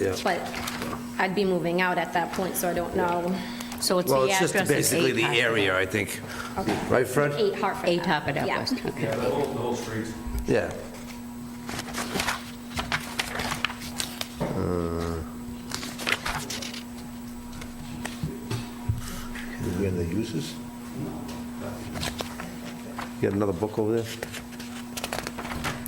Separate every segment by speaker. Speaker 1: Yeah.
Speaker 2: But I'd be moving out at that point, so I don't know.
Speaker 3: So it's
Speaker 1: Well,
Speaker 3: the
Speaker 1: it's just
Speaker 3: address is 8
Speaker 1: basically the
Speaker 3: Hartford.
Speaker 1: area, I think.
Speaker 2: Okay.
Speaker 1: Right, Fred?
Speaker 2: Eight Hartford.
Speaker 3: 8 Hartford
Speaker 2: Yeah.
Speaker 3: Outlets, okay.
Speaker 4: The whole, the whole street.
Speaker 1: Yeah. Uh,
Speaker 5: Did we end the uses?
Speaker 1: You got another book over there?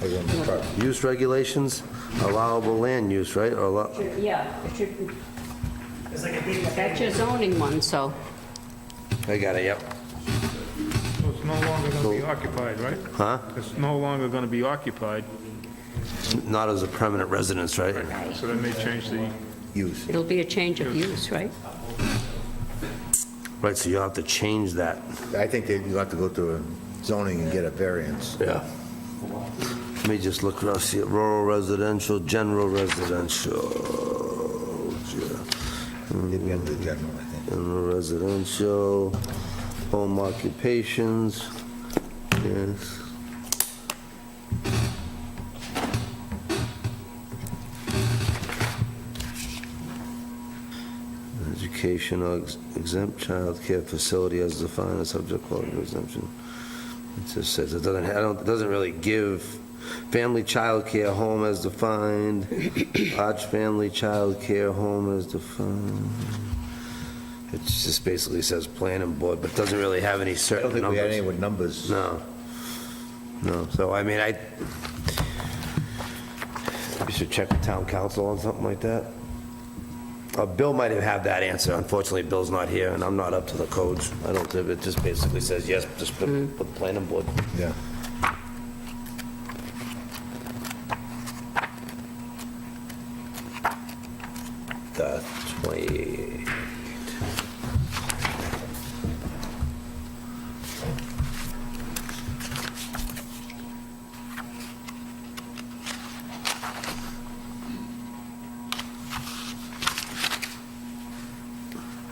Speaker 5: Or we end the part?
Speaker 1: Use regulations, allowable land use, right? Or allow-
Speaker 3: Yeah, it should be- that's your zoning one, so,
Speaker 1: I got it, yep.
Speaker 6: So it's no longer going to be occupied, right?
Speaker 1: Huh?
Speaker 6: It's no longer going to be occupied,
Speaker 1: Not as a permanent residence, right?
Speaker 6: so then they change the,
Speaker 5: Use.
Speaker 3: it'll be a change of use, right?
Speaker 1: Right, so you'll have to change that.
Speaker 5: I think that you have to go through zoning and get a variance.
Speaker 1: Yeah. Let me just look around, see, rural residential, general residential.
Speaker 5: Did we end the general, I think?
Speaker 1: General residential, home occupations, yes. Education or ex- exempt childcare facility as defined as subject quality exemption. It just says, it doesn't, I don't, it doesn't really give family childcare home as defined, large family childcare home as defined. It just basically says planning board, but doesn't really have any
Speaker 5: I don't
Speaker 1: certain
Speaker 5: think we had any
Speaker 1: numbers.
Speaker 5: with numbers.
Speaker 1: No. No, so I mean, I, we should check with town council on something like that. Uh, Bill might have had that answer. Unfortunately, Bill's not here, and I'm not up to the codes. I don't, it just basically says, yes, just put, put planning board.
Speaker 5: Yeah.
Speaker 1: the 20...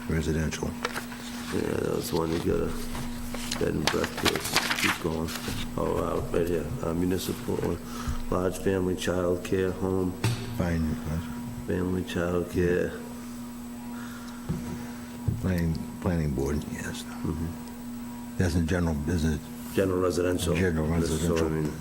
Speaker 5: Residential.
Speaker 1: Yeah, that was the one you got a bed and breakfast, keep going. Oh, wow, right here, Uh, municipal, uh, large family childcare home,
Speaker 5: Fine.
Speaker 1: family childcare.
Speaker 5: Planning, planning board, yes. That's in general business.
Speaker 1: General residential.
Speaker 5: General residential.
Speaker 1: So, I mean,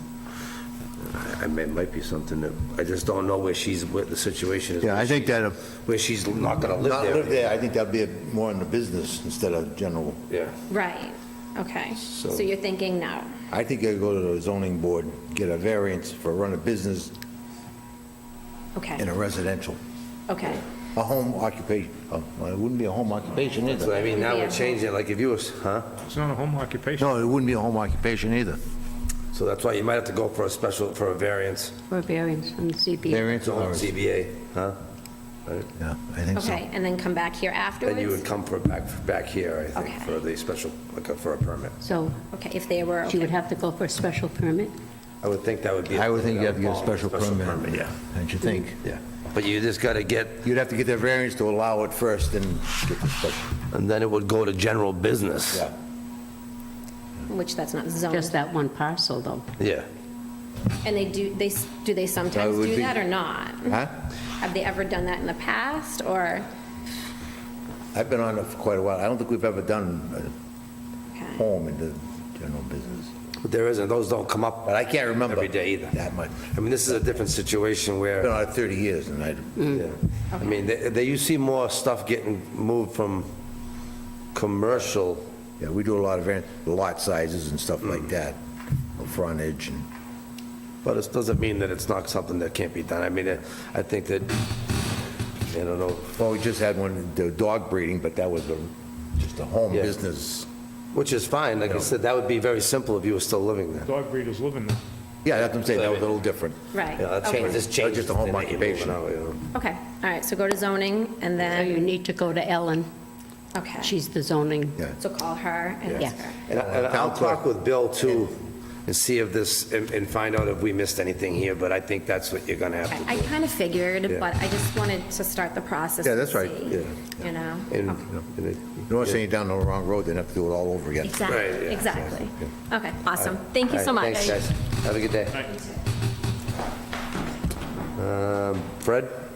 Speaker 1: I- I mean, it might be something that, I just don't know where she's, what the situation is.
Speaker 5: Yeah, I think that, uh,
Speaker 1: Where she's not gonna
Speaker 5: not
Speaker 1: live
Speaker 5: live
Speaker 1: there.
Speaker 5: there, I think that'd be more in the business instead of general.
Speaker 1: Yeah.
Speaker 2: Right, okay.
Speaker 1: So-
Speaker 2: So you're thinking now.
Speaker 5: I think I'd go to the zoning board, get a variance for run a business in
Speaker 2: okay,
Speaker 5: a residential,
Speaker 2: okay.
Speaker 5: a home occupation, oh, well, it wouldn't be a home occupation
Speaker 1: That's what
Speaker 5: either.
Speaker 1: I mean, now we're changing, it. like if you was, huh?
Speaker 6: it's not a home occupation.
Speaker 5: No, it wouldn't be a home occupation either.
Speaker 1: So that's why you might have to go for a special, for a variance,
Speaker 3: For a variance from the ZBA.
Speaker 5: Variance or,
Speaker 1: ZBA, huh?
Speaker 5: yeah, I think so.
Speaker 2: Okay, and then come back here afterwards?
Speaker 1: Then you would come for back, back here, I think,
Speaker 2: Okay.
Speaker 1: for the special, like uh, for a permit.
Speaker 3: So
Speaker 2: Okay, if they were,
Speaker 3: she
Speaker 2: okay.
Speaker 3: would have to go for a special permit?
Speaker 1: I would think that would be.
Speaker 5: I would think you have to get a
Speaker 1: Oh,
Speaker 5: special permit.
Speaker 1: yeah,
Speaker 5: Don't you think?
Speaker 1: yeah. But you just got to get,
Speaker 5: You'd have to get the variance to allow it first and get the special.
Speaker 1: and then it would go to general business.
Speaker 5: Yeah.
Speaker 2: which that's not zoned.
Speaker 3: Just that one parcel, though.
Speaker 1: Yeah.
Speaker 2: And they do, they, s- do they sometimes
Speaker 5: would
Speaker 2: do
Speaker 5: be-
Speaker 2: that or not?
Speaker 5: Huh?
Speaker 2: Have they ever done that in the past, or?
Speaker 5: I've been on it for quite a while. I don't think we've ever done a
Speaker 2: okay.
Speaker 5: home in the general business.
Speaker 1: But there isn't, those don't come up.
Speaker 5: But I can't remember.
Speaker 1: Every day either.
Speaker 5: That much.
Speaker 1: I mean, this is a different situation
Speaker 5: I've been
Speaker 1: where,
Speaker 5: on it 30 years and I,
Speaker 1: yeah. I mean, they, they- you see more stuff getting moved from commercial.
Speaker 5: yeah, we do a lot of var- lot sizes and stuff
Speaker 1: Mm.
Speaker 5: like that, frontage and.
Speaker 1: But it doesn't mean that it's not something that can't be done. I mean, I I think that, I don't know,
Speaker 5: Well, we just had one, the dog breeding, but that was a, just a home
Speaker 1: Yeah.
Speaker 5: business.
Speaker 1: which is fine. Like I said, that would be very simple if you were still living there.
Speaker 6: Dog breeders live in there.
Speaker 5: Yeah, that's what I'm saying, that was a little different.
Speaker 2: Right.
Speaker 1: Yeah, that change,
Speaker 2: okay.
Speaker 1: this changes.
Speaker 5: Just a
Speaker 1: the
Speaker 5: home
Speaker 1: name,
Speaker 5: occupation.
Speaker 1: you know, you know.
Speaker 2: Okay, all right, so go to zoning, and
Speaker 3: So you
Speaker 2: then,
Speaker 3: need to go to Ellen.
Speaker 2: okay.
Speaker 3: She's the zoning.
Speaker 5: Yeah.
Speaker 2: So call her and
Speaker 3: Yeah.
Speaker 2: ask her.
Speaker 1: And I- and I'll
Speaker 5: Town clerk.
Speaker 1: talk with Bill too, and see if this, and and find out if we missed anything here, but I think that's what you're gonna have
Speaker 2: Okay,
Speaker 1: to
Speaker 2: I
Speaker 1: do.
Speaker 2: kind of
Speaker 1: Yeah.
Speaker 2: figured, but I just wanted to start the process.
Speaker 5: Yeah,
Speaker 2: and
Speaker 5: that's right,
Speaker 2: see,
Speaker 1: yeah.
Speaker 2: You know?
Speaker 1: And-
Speaker 2: Okay.
Speaker 1: and it-
Speaker 5: You know, saying you're down the wrong road, then have to do it all over again.
Speaker 2: Exactly,
Speaker 1: Right, yeah.
Speaker 2: exactly. Okay, awesome. Thank you so
Speaker 1: All
Speaker 2: much.
Speaker 1: right, Thanks, guys. Have a good day. Um, Fred?